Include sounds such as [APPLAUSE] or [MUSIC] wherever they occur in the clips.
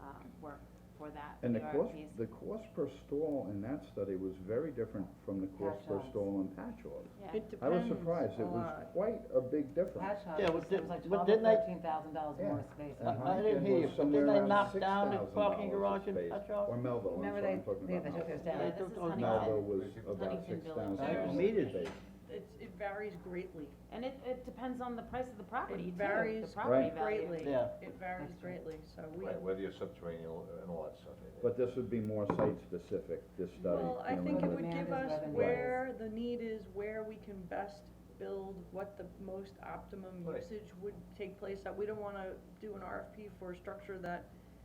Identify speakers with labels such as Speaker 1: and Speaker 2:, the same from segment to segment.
Speaker 1: um, work for that.
Speaker 2: And the cost,
Speaker 1: PRPs.
Speaker 2: the cost per stall in that study was very different from the cost per
Speaker 3: Patchogues.
Speaker 2: stall in Patchogue.
Speaker 1: Yeah,
Speaker 4: It
Speaker 2: I was
Speaker 4: depends
Speaker 2: surprised,
Speaker 4: a
Speaker 2: it was
Speaker 4: lot.
Speaker 2: quite a big difference.
Speaker 3: Patch house,
Speaker 5: Yeah, but
Speaker 3: it was like
Speaker 5: did-
Speaker 3: twelve
Speaker 5: but
Speaker 3: or
Speaker 5: didn't they-
Speaker 3: thirteen thousand dollars
Speaker 2: Yeah.
Speaker 3: more space.
Speaker 2: And
Speaker 5: I- I
Speaker 2: Hopkins
Speaker 5: didn't hear
Speaker 2: was
Speaker 5: you, but
Speaker 2: somewhere
Speaker 5: didn't they
Speaker 2: around
Speaker 5: knock down the
Speaker 2: $6,000
Speaker 5: parking
Speaker 2: a
Speaker 5: garage in
Speaker 2: space.
Speaker 5: Patchogue?
Speaker 2: Or Melville, I'm
Speaker 3: Remember
Speaker 2: sorry,
Speaker 3: they,
Speaker 2: I'm talking
Speaker 3: they, they
Speaker 2: about
Speaker 3: took us
Speaker 2: Melville.
Speaker 3: down.
Speaker 1: Yeah, this is
Speaker 5: Melville
Speaker 2: Melville
Speaker 1: Huntington.
Speaker 2: was about
Speaker 1: Huntington
Speaker 2: six thousand
Speaker 1: Village.
Speaker 2: dollars.
Speaker 5: Meeting.
Speaker 4: It's, it varies greatly.
Speaker 1: And it, it depends on the price of the property too,
Speaker 4: It
Speaker 1: the
Speaker 4: varies
Speaker 1: property value.
Speaker 4: greatly.
Speaker 5: Yeah.
Speaker 4: It varies
Speaker 3: That's right.
Speaker 4: greatly, so we,
Speaker 6: Right, whether you're subterranean and all that stuff. it-
Speaker 2: But this would be more site-specific, this study.
Speaker 4: well, I
Speaker 2: you know,
Speaker 4: think it
Speaker 2: and-
Speaker 3: what
Speaker 4: would
Speaker 3: demand
Speaker 4: give
Speaker 3: is,
Speaker 4: us
Speaker 3: revenue
Speaker 4: where the need is, where we can best build, what the most optimum
Speaker 6: Right.
Speaker 4: usage would take place. That we don't wanna do an RFP for a structure that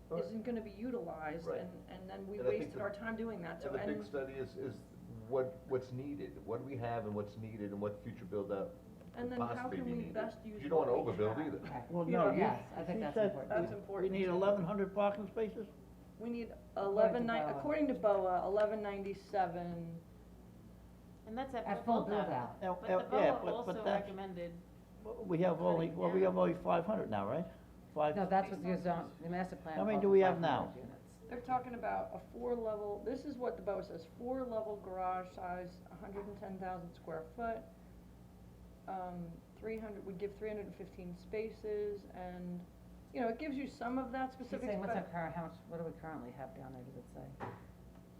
Speaker 6: Right.
Speaker 4: isn't gonna be utilized
Speaker 6: Right.
Speaker 4: and, and then we
Speaker 6: And I think
Speaker 4: wasted
Speaker 6: the-
Speaker 4: our time doing that, so,
Speaker 6: And the
Speaker 4: and,
Speaker 6: big study is, is what, what's needed, what do we have and what's needed and what future build-out
Speaker 4: and
Speaker 6: could
Speaker 4: then how
Speaker 6: possibly
Speaker 4: can
Speaker 6: be
Speaker 4: we
Speaker 6: needed.
Speaker 4: best use
Speaker 6: You don't wanna
Speaker 4: what we
Speaker 6: overbuild
Speaker 4: have?
Speaker 6: either.
Speaker 3: Right.
Speaker 5: Well,
Speaker 4: You
Speaker 5: no,
Speaker 4: don't-
Speaker 5: you.
Speaker 4: yes, I think
Speaker 5: you
Speaker 3: that's
Speaker 5: said
Speaker 3: important.
Speaker 4: That's
Speaker 5: we-
Speaker 4: important,
Speaker 5: We need
Speaker 4: too.
Speaker 5: eleven hundred parking spaces?
Speaker 4: We need
Speaker 3: to
Speaker 4: eleven nine,
Speaker 3: BOA.
Speaker 4: according to BOA, eleven ninety-seven,
Speaker 1: And that's at
Speaker 3: At
Speaker 1: full
Speaker 3: full
Speaker 1: build
Speaker 3: build-out.
Speaker 1: out.
Speaker 5: Now-
Speaker 1: But
Speaker 5: now,
Speaker 1: the BOA
Speaker 5: yeah, but- but
Speaker 1: also
Speaker 5: that's-
Speaker 1: recommended,
Speaker 5: Well, We have only, well, we have only five hundred now, right? Five,
Speaker 3: No, that's what your zone, the master plan.
Speaker 5: How many
Speaker 3: calls
Speaker 5: do
Speaker 3: for
Speaker 5: we have
Speaker 3: 500
Speaker 5: now?
Speaker 3: units.
Speaker 4: they're talking about a four-level, this is what the BOA says, four-level garage size, hundred and ten thousand square foot. Um, three hundred, would give three hundred and fifteen spaces, and, you know, it gives you some of that
Speaker 3: She's
Speaker 4: specifics,
Speaker 3: saying, what's our
Speaker 4: but,
Speaker 3: current, how much, what do we currently have down there, does it say?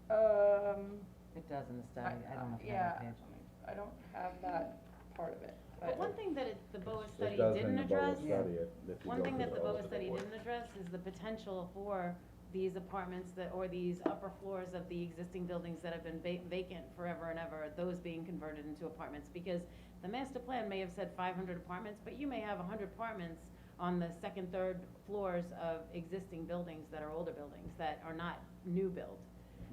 Speaker 4: um,
Speaker 3: It does in the
Speaker 4: I,
Speaker 3: study, I don't know if you
Speaker 4: yeah,
Speaker 3: have that page.
Speaker 4: I don't have that part of it,
Speaker 1: but
Speaker 4: but,
Speaker 1: one thing that it, the BOA study
Speaker 2: It does in
Speaker 1: didn't
Speaker 2: the
Speaker 1: address,
Speaker 2: Boa study, if you
Speaker 1: one
Speaker 2: go
Speaker 1: thing
Speaker 2: to
Speaker 1: that the BOA
Speaker 6: the
Speaker 1: study
Speaker 6: board.
Speaker 1: didn't address is the potential for these apartments that, or these upper floors of the existing buildings that have been va- vacant forever and ever, those being converted into apartments, because the master plan may have said five hundred apartments, but you may have hundred apartments on the second, third floors of existing buildings that are older buildings, that are not new build.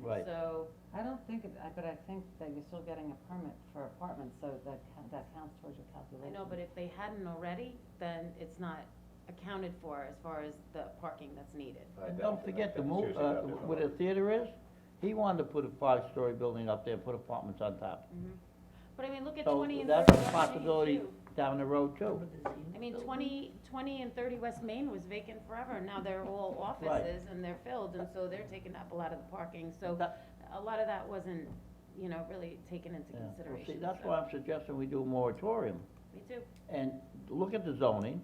Speaker 5: right.
Speaker 1: So,
Speaker 3: I don't think, it- I- but I think that you're still getting a permit for apartments, so that, ca- that counts towards your
Speaker 1: I
Speaker 3: calculation.
Speaker 1: know, but if they hadn't already, then it's not accounted for as far as the parking that's needed.
Speaker 6: I
Speaker 5: And
Speaker 6: doubt
Speaker 5: don't
Speaker 6: that,
Speaker 5: forget
Speaker 6: I
Speaker 5: the
Speaker 6: doubt-
Speaker 5: move,
Speaker 6: seriously
Speaker 5: uh,
Speaker 6: doubt that.
Speaker 5: where the theater is, he wanted to put a five-story building up there, put apartments on top.
Speaker 1: Mm-hmm. But I mean, look at
Speaker 5: So
Speaker 1: twenty and thirty
Speaker 5: that's a
Speaker 1: West Main,
Speaker 5: possibility.
Speaker 1: too.
Speaker 5: Down the road too.
Speaker 1: I mean, 20 20 and thirty West Main was vacant forever, and now they're
Speaker 5: [LAUGHS]
Speaker 1: all offices and they're filled, and so they're taking up a lot of the parking, so
Speaker 5: That-
Speaker 1: a lot of that wasn't, you know, really taken into
Speaker 5: yeah. Well,
Speaker 1: consideration.
Speaker 5: See, that's
Speaker 1: so-
Speaker 5: why I'm suggesting we do a moratorium.
Speaker 1: Me too.
Speaker 5: and look at the zoning,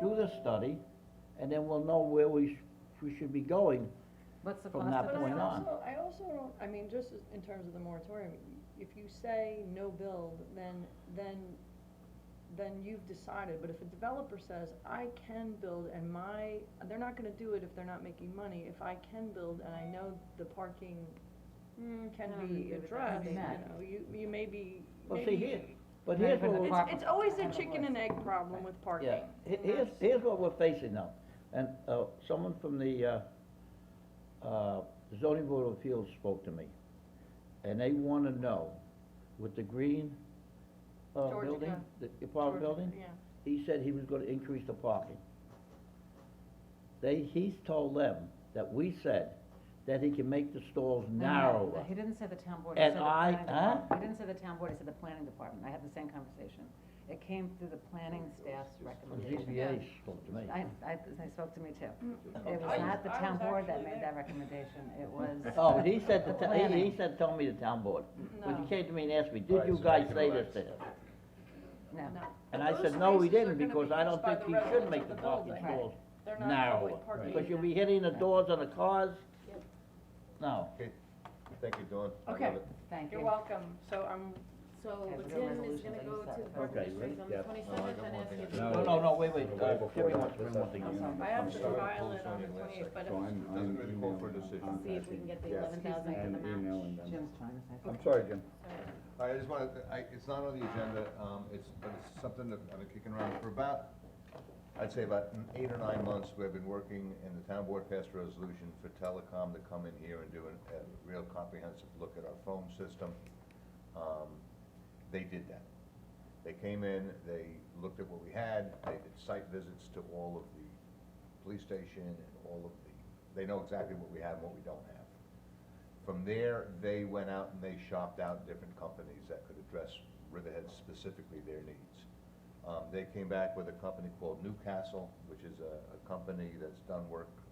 Speaker 5: do the study, and then we'll know where we, sh- we should be going.
Speaker 3: What's the
Speaker 5: From
Speaker 3: cost
Speaker 5: that
Speaker 3: of
Speaker 4: But I
Speaker 5: point
Speaker 3: that?
Speaker 5: on.
Speaker 4: also, I also don't, I mean, just as- in terms of the moratorium, if you say no build, then, then, then you've decided, but if a developer says, I can build and my, they're not gonna do it if they're not making money, if I can build and I know the parking
Speaker 1: Mm,
Speaker 4: can
Speaker 1: I don't
Speaker 4: be
Speaker 1: agree with that.
Speaker 4: addressed, you
Speaker 3: Matt.
Speaker 4: know, you, you may be,
Speaker 5: Well,
Speaker 4: maybe.
Speaker 5: see, here, but here's what, we're-
Speaker 3: Management
Speaker 4: It's, it's always a chicken and egg problem with parking.
Speaker 5: yeah, he-
Speaker 4: and
Speaker 5: here's,
Speaker 4: that's-
Speaker 5: here's what we're facing now, and, uh, someone from the, uh, uh, zoning board of appeals spoke to me, and they wanna know, with the green, uh,
Speaker 4: Georgia
Speaker 5: building,
Speaker 4: Gun.
Speaker 5: the apartment
Speaker 4: George-
Speaker 5: building?
Speaker 4: Yeah.
Speaker 5: he said he was gonna increase the parking. They, he's told them that we said that he can make the stalls
Speaker 3: No, no,
Speaker 5: narrower.
Speaker 3: no, He didn't say the town board, he
Speaker 5: And
Speaker 3: said the
Speaker 5: I-
Speaker 3: planning
Speaker 5: huh?
Speaker 3: department. He didn't say the town board, he said the planning department, I had the same conversation. It came through the planning staff's
Speaker 5: The
Speaker 3: recommendation.
Speaker 5: ZBA spoke to me.
Speaker 3: I, I, they spoke to me too. It was
Speaker 4: Mm. I
Speaker 3: not the
Speaker 4: was- I
Speaker 3: town
Speaker 4: was
Speaker 3: board that
Speaker 4: actually
Speaker 3: made
Speaker 4: there.
Speaker 3: that recommendation, it was.
Speaker 5: Oh, but he said, the
Speaker 3: The
Speaker 5: ta- he,
Speaker 3: planning.
Speaker 5: he said, told me the town board. But
Speaker 4: No.
Speaker 5: he came to me and asked me,
Speaker 6: All
Speaker 5: did
Speaker 6: right,
Speaker 5: you
Speaker 6: so
Speaker 5: guys
Speaker 6: we can
Speaker 5: say this
Speaker 6: relax.
Speaker 5: thing?
Speaker 3: No,
Speaker 4: No. But
Speaker 5: And I
Speaker 4: those
Speaker 5: said, no, we
Speaker 4: spaces are
Speaker 5: didn't,
Speaker 4: gonna
Speaker 5: because
Speaker 4: be
Speaker 5: I
Speaker 4: used
Speaker 5: don't
Speaker 4: by
Speaker 5: think
Speaker 4: the
Speaker 5: he should
Speaker 4: residents
Speaker 5: make
Speaker 4: of
Speaker 5: the
Speaker 4: the
Speaker 5: parking
Speaker 4: building.
Speaker 5: stalls
Speaker 4: They're not
Speaker 5: narrower.
Speaker 4: public parking.
Speaker 5: Because you'll be hitting the doors on the cars. No,
Speaker 6: Thank you, Dawn. I love
Speaker 4: Okay.
Speaker 6: it.
Speaker 3: thank you.
Speaker 4: You're welcome, so I'm,
Speaker 1: So
Speaker 3: Okay, we'll do
Speaker 1: Tim is
Speaker 3: resolutions
Speaker 1: gonna go to
Speaker 3: on the
Speaker 1: the
Speaker 3: seventh.
Speaker 1: parking
Speaker 5: Okay,
Speaker 1: district on the
Speaker 2: yes.
Speaker 6: No, I
Speaker 1: twenty-seventh and
Speaker 6: got one
Speaker 1: ask
Speaker 6: thing I
Speaker 1: if
Speaker 6: do.
Speaker 1: you.
Speaker 5: no, no, no, wait, wait,
Speaker 2: Way
Speaker 5: uh,
Speaker 2: before
Speaker 5: Terry
Speaker 2: that.
Speaker 5: wants to bring one thing.
Speaker 4: I'm sorry, I have
Speaker 6: I'm
Speaker 4: to
Speaker 6: sorry,
Speaker 4: file it on the
Speaker 6: close on your last
Speaker 4: twenty-eighth, but
Speaker 2: So I'm,
Speaker 4: if,
Speaker 2: I'm
Speaker 6: Doesn't really call
Speaker 2: emailing
Speaker 6: for a decision.
Speaker 2: contacting-
Speaker 1: See if we can get the
Speaker 2: yes,
Speaker 1: 11,000 for
Speaker 2: and
Speaker 1: the match.
Speaker 2: emailing them.
Speaker 3: Jim's trying to say
Speaker 2: I'm
Speaker 3: something.
Speaker 2: sorry, Jim.
Speaker 6: All right, I just wanna, I, it's not on the agenda, um, it's, but it's something that I've been kicking around for about, I'd say about n- eight or nine months, we've been working, and the town board passed a resolution for telecom to come in here and do an- a real comprehensive look at our phone system. Um, They did that. They came in, they looked at what we had, they did site visits to all of the police station and all of the, they know exactly what we have and what we don't have. From there, they went out and they shopped out different companies that could address Riverhead specifically their needs. Um, they came back with a company called Newcastle, which is a, a company that's done work